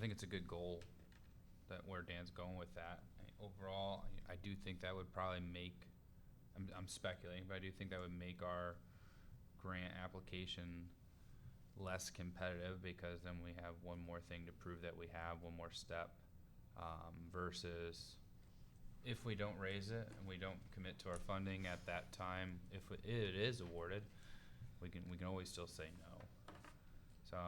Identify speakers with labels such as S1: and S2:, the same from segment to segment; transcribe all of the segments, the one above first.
S1: think it's a good goal that where Dan's going with that. I- Overall, I- I do think that would probably make, I'm, I'm speculating, but I do think that would make our grant application less competitive because then we have one more thing to prove that we have, one more step, um, versus if we don't raise it and we don't commit to our funding at that time, if it- it is awarded, we can, we can always still say no. So,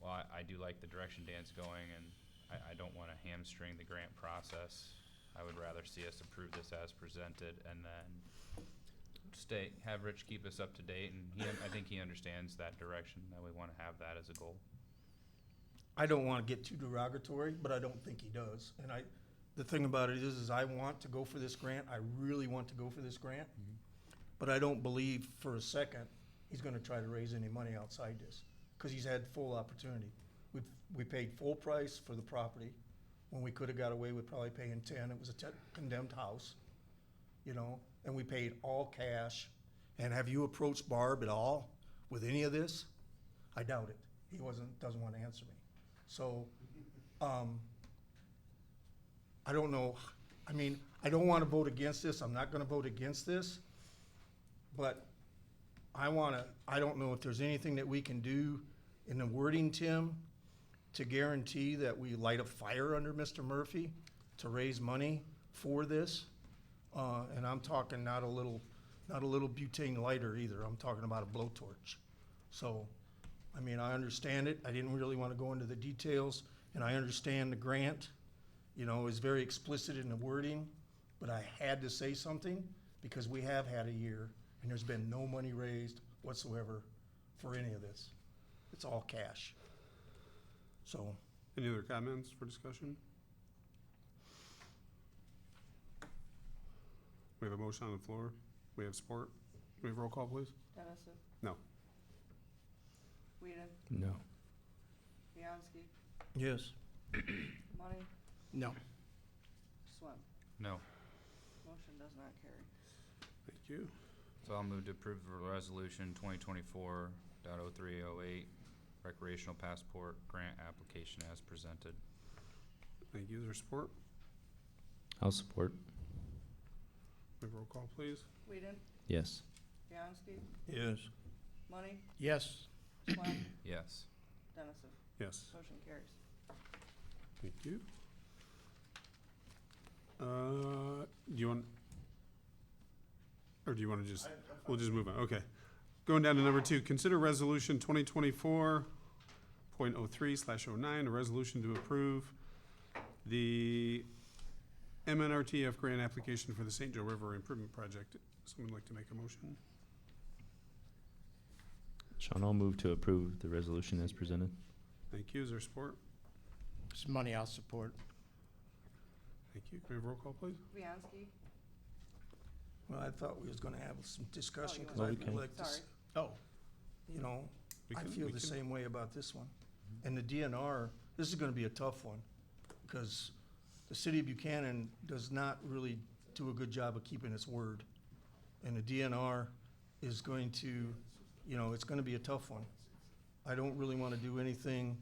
S1: well, I, I do like the direction Dan's going, and I, I don't wanna hamstring the grant process. I would rather see us approve this as presented and then stay, have Rich keep us up to date, and he, I think he understands that direction, that we wanna have that as a goal.
S2: I don't want to get too derogatory, but I don't think he does. And I, the thing about it is, is I want to go for this grant. I really want to go for this grant.
S1: Mhm.
S2: But I don't believe for a second he's going to try to raise any money outside this because he's had full opportunity. We, we paid full price for the property when we could have got away with probably paying ten. It was a te- condemned house, you know, and we paid all cash. And have you approached Barb at all with any of this? I doubt it. He wasn't, doesn't want to answer me. So, um, I don't know, I mean, I don't wanna vote against this, I'm not gonna vote against this, but I wanna, I don't know if there's anything that we can do in the wording, Tim, to guarantee that we light a fire under Mr. Murphy to raise money for this. Uh, and I'm talking not a little, not a little butane lighter either, I'm talking about a blowtorch. So, I mean, I understand it. I didn't really want to go into the details, and I understand the grant, you know, is very explicit in the wording, but I had to say something because we have had a year and there's been no money raised whatsoever for any of this. It's all cash. So,
S3: Any other comments for discussion? We have a motion on the floor. We have support. Can we have roll call, please?
S4: Dennison.
S3: No.
S4: Whedon,
S1: No.
S4: Bianski,
S2: yes.
S4: Money,
S2: No.
S4: Swim.
S1: No.
S4: Motion does not carry.
S3: Thank you.
S1: So I'll move to approve the resolution twenty twenty-four dot oh three oh eight, recreational passport grant application as presented.
S3: Thank you. Is there support?
S5: I'll support.
S3: We have roll call, please.
S4: Whedon,
S5: Yes.
S4: Bianski,
S2: Yes.
S4: Money,
S2: Yes.
S4: Swam,
S1: Yes.
S4: Dennison.
S3: Yes.
S4: Motion carries.
S3: Thank you. Uh, do you want? Or do you wanna just, we'll just move on, okay. Going down to number two, consider resolution twenty twenty-four point oh three slash oh nine, a resolution to approve the MNRTF grant application for the St. Joe River Improvement Project. Someone like to make a motion?
S5: Sean, I'll move to approve the resolution as presented.
S3: Thank you, is there support?
S6: It's money I'll support.
S3: Thank you, can we have roll call, please?
S4: Bianski,
S2: Well, I thought we was gonna have some discussion, cause
S4: Oh,
S5: you
S2: I'd
S5: can.
S2: like to,
S4: sorry.
S2: s-
S6: Oh.
S2: you know,
S3: We
S2: I
S3: can-
S2: feel
S3: we
S2: the
S3: can- Mm-hmm.
S2: same way about this one. And the DNR, this is gonna be a tough one, because the city of Buchanan does not really do a good job of keeping its word. And the DNR is going to, you know, it's gonna be a tough one. I don't really wanna do anything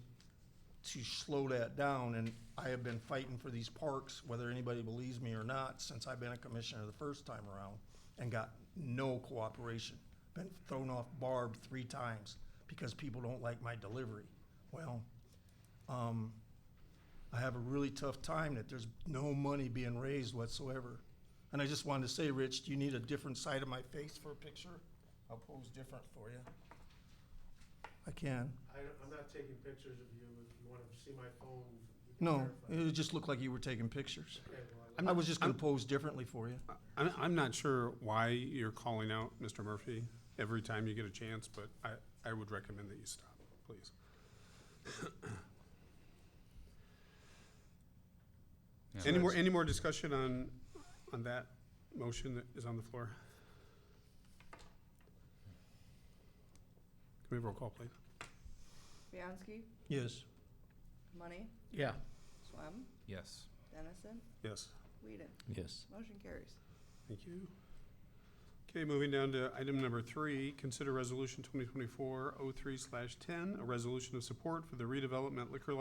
S2: to slow that down, and I have been fighting for these parks, whether anybody believes me or not, since I've been a commissioner the first time around, and got no cooperation. Been thrown off barb three times because people don't like my delivery. Well, um, I have a really tough time that there's no money being raised whatsoever. And I just wanted to say, Rich, do you need a different side of my face for a picture? I'll pose different for you. I can.
S7: I, I'm not taking pictures of you. If you want to see my phone, you can
S2: No,
S7: verify.
S2: it would just looked like you were taking pictures.
S7: Okay, well, I-
S2: I was just gonna
S3: I'm-
S2: pose differently for you.
S3: I'm, I'm not sure why you're calling out Mr. Murphy every time you get a chance, but I, I would recommend that you stop, please.
S1: Yeah.
S3: Any more, any more discussion on, on that motion that is on the floor? Can we have roll call, please?
S4: Bianski,
S2: Yes.
S4: Money,
S6: Yeah.
S4: Swam,
S1: Yes.
S4: Dennison,
S3: Yes,
S4: Whedon.
S5: Yes.
S4: Motion carries.
S3: thank you. Okay, moving down to item number three, consider resolution twenty twenty-four oh three slash ten, a resolution of support for the redevelopment liquor